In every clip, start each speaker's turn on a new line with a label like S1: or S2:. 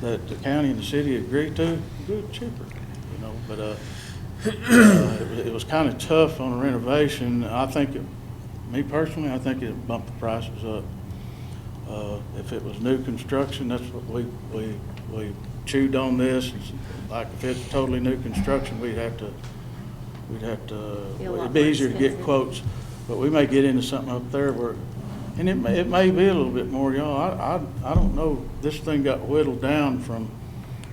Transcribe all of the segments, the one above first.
S1: that the county and the city agreed to, good cheaper, you know, but, uh, uh, it was- it was kind of tough on the renovation. I think, it- me personally, I think it bumped the prices up. Uh, If it was new construction, that's what we, we, we chewed on this. Like if it's totally new construction, we'd have to, we'd have to,
S2: Be a lot
S1: it'd be
S2: more
S1: easier to get
S2: expensive.
S1: quotes. But we may get into something up there where, and it may, it may be a little bit more, y'all. I, I, I don't know. This thing got whittled down from,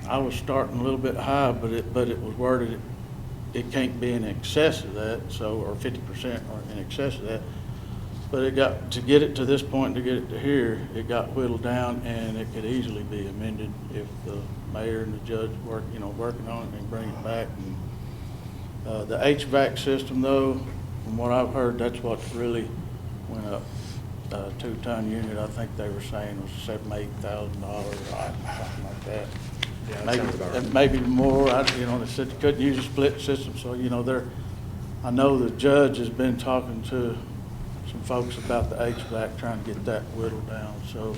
S1: I was starting a little bit high, but it, but it was worded, it- it can't be in excess of that, so, or fifty percent or in excess of that. But it got, to get it to this point, to get it to here, it got whittled down and it could easily be amended if the mayor and the judge work, you know, working on it and bring it back. And, Uh, the HVAC system though, from what I've heard, that's what really went up. Uh, two-ton unit, I think they were saying was seven, eight thousand dollars, something like that.
S3: Yeah, that
S1: Maybe-
S3: sounds about right.
S1: Maybe more, I, you know, they said they couldn't use a split system, so, you know, they're, I know the judge has been talking to some folks about the HVAC, trying to get that whittled down, so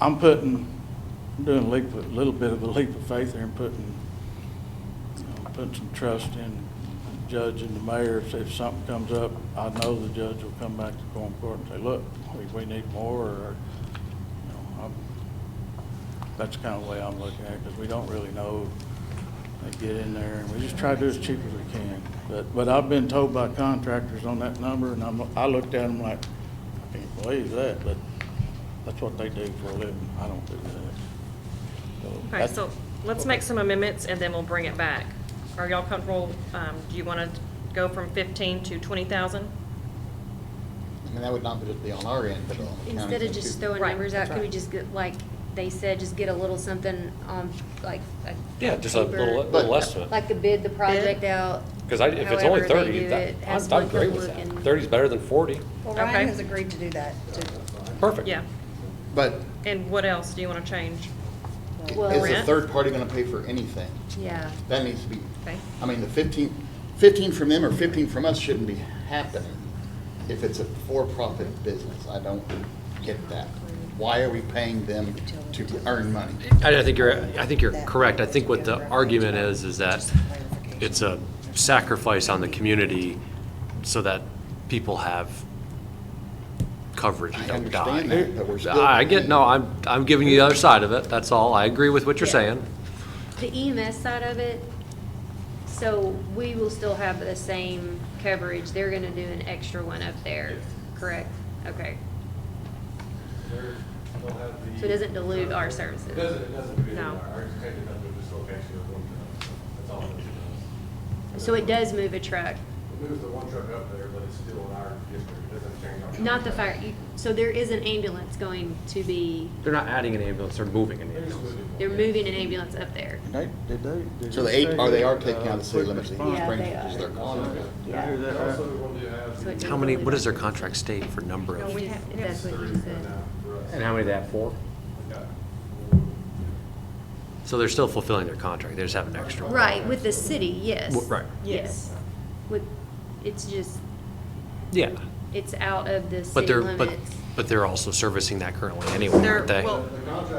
S1: I'm putting, I'm doing a leap, a little bit of a leap of faith here and putting, you know, putting some trust in the judge and the mayor, if, if something comes up, I know the judge will come back to going court and say, look, we, we need more, or, you know, I'm, that's the kind of way I'm looking at it, because we don't really know, they get in there, and we just try to do as cheap as we can. But, but I've been told by contractors on that number, and I'm, I looked at them like, I can't believe that, but that's what they do for a living, I don't do that.
S2: Okay, so let's make some amendments and then we'll bring it back. Are y'all comfortable, um, do you want to go from fifteen to twenty thousand?
S4: I mean, that would not just be on our end, but on the county's
S5: Instead
S4: end,
S5: of just
S4: too.
S5: throwing
S2: Right,
S5: numbers out,
S2: that's
S5: could we
S2: right.
S5: just get, like they said, just get a little something on, like, a
S6: Yeah, just a little,
S5: paper,
S6: little estimate.
S5: Like the bid, the project out.
S6: Because I, if it's only
S5: however they
S6: thirty,
S5: do
S6: that,
S5: it, has
S6: I'm,
S5: one
S6: I'm great
S5: good
S6: with
S5: look
S6: that.
S5: and-
S6: Thirty's better than forty.
S7: Well,
S2: Okay.
S7: Ryan has agreed to do that, to,
S6: Perfect.
S2: Yeah,
S4: But
S2: and what else do you want to change?
S5: Well,
S4: is the
S2: Rent?
S4: third party gonna pay for anything?
S5: Yeah,
S4: That needs to be,
S2: Okay.
S4: I mean, the 15 15 from them or fifteen from us shouldn't be happening if it's a for-profit business. I don't get that. Why are we paying them to earn money?
S3: I, I think you're, I think you're correct. I think what the argument is, is that it's a sacrifice on the community so that people have coverage and
S4: I
S3: don't die.
S4: understand that, but we're still
S3: I I get, no,
S4: paying.
S3: I'm, I'm giving you the other side of it, that's all. I agree with what you're
S5: Yeah.
S3: saying.
S5: the EMS side of it, so we will still have the same coverage, they're gonna do an extra one up there, correct? Okay, so it doesn't dilute our services?
S8: It doesn't, it doesn't really,
S5: No.
S8: our expected number of dislocation of one truck, that's all it does.
S5: So it does move a truck,
S8: It moves the one truck up there, but it's still in our district, it doesn't change our.
S5: not the fire, you- so there is an ambulance going to be,
S3: They're not adding an ambulance, they're moving an
S8: It's moving.
S5: they're moving an ambulance up there.
S1: They, did they? did
S4: So
S1: they
S4: the
S1: say
S4: eight, are they
S1: that,
S4: are taking out the city
S1: uh,
S4: limits of
S1: quick
S4: Heath
S1: response-
S4: Springs, which is their contract?
S1: Did I hear that uh, right?
S8: Also, we want to have.
S5: So it
S3: How many, what does their contract state for number
S5: No,
S3: of?
S5: we have, that's what
S8: three
S5: you
S8: right
S5: said.
S8: now for us.
S3: And how many they have, four?
S8: We got-
S3: So they're still fulfilling their contract, they just have an extra. one.
S5: Right, with the city, yes.
S3: W- Right,
S5: Yes. With, it's just,
S3: yeah.
S5: it's out of the
S3: But
S5: city
S3: they're, but,
S5: limits.
S3: but they're also servicing that currently anyway,
S2: They're-
S3: aren't they?
S2: well,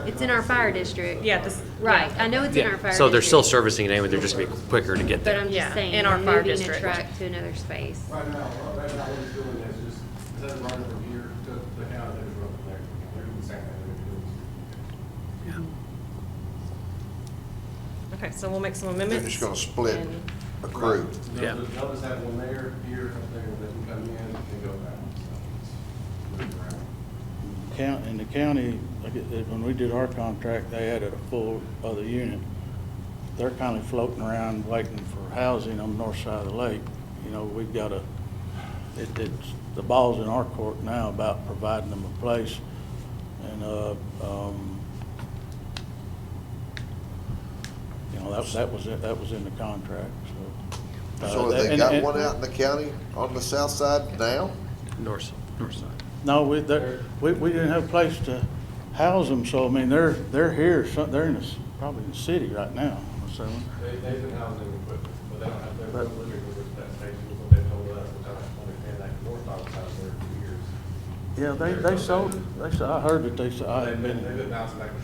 S5: It's in our fire district.
S2: Yeah, this.
S5: Right, I know it's in
S3: Yeah,
S5: our fire district.
S3: So they're still servicing it anyway, they're just gonna be quicker to get
S5: But
S3: there.
S5: I'm
S2: Yeah,
S5: just saying,
S2: in
S5: in
S2: our
S5: our
S2: fire
S5: moving a
S2: district.
S5: truck to another space.
S8: Right now, right now, what it's doing is just, it doesn't run from here to the county, it's running there, they're doing the same thing they're
S2: Okay, so we'll make some
S9: They're
S2: amendments.
S9: just gonna split
S2: and-
S9: a
S8: doing.
S9: crew.
S3: Yeah.
S8: They'll just- They'll just have one there, here, up there, and they can come in and go back, so, it's moving around.
S1: Count, in the county, like, it- it- when we did our contract, they added a full other unit. They're kind of floating around waiting for housing on the north side of the lake. You know, we've got a, it, it's, the ball's in our court now about providing them a place. And, uh, um, you know, that, that was, it- that was in the contract, so. uh,
S9: So
S1: that-
S9: have they
S1: and-
S9: got
S1: and-
S9: one out in the county on the south side now?
S3: North, north side.
S1: No, we, they're- we, we didn't have a place to house them, so I mean, they're, they're here, so they're in this, probably in the city right now, so.
S8: They, they've been housing equipment, but they don't have, they're not looking for that station, what they told us, which I don't understand that North Dog was out there for years.
S1: Yeah, they, they sold, they, s- I heard that they, s- I
S8: They've
S1: had
S8: been, they've
S1: been.
S8: been bouncing back and forth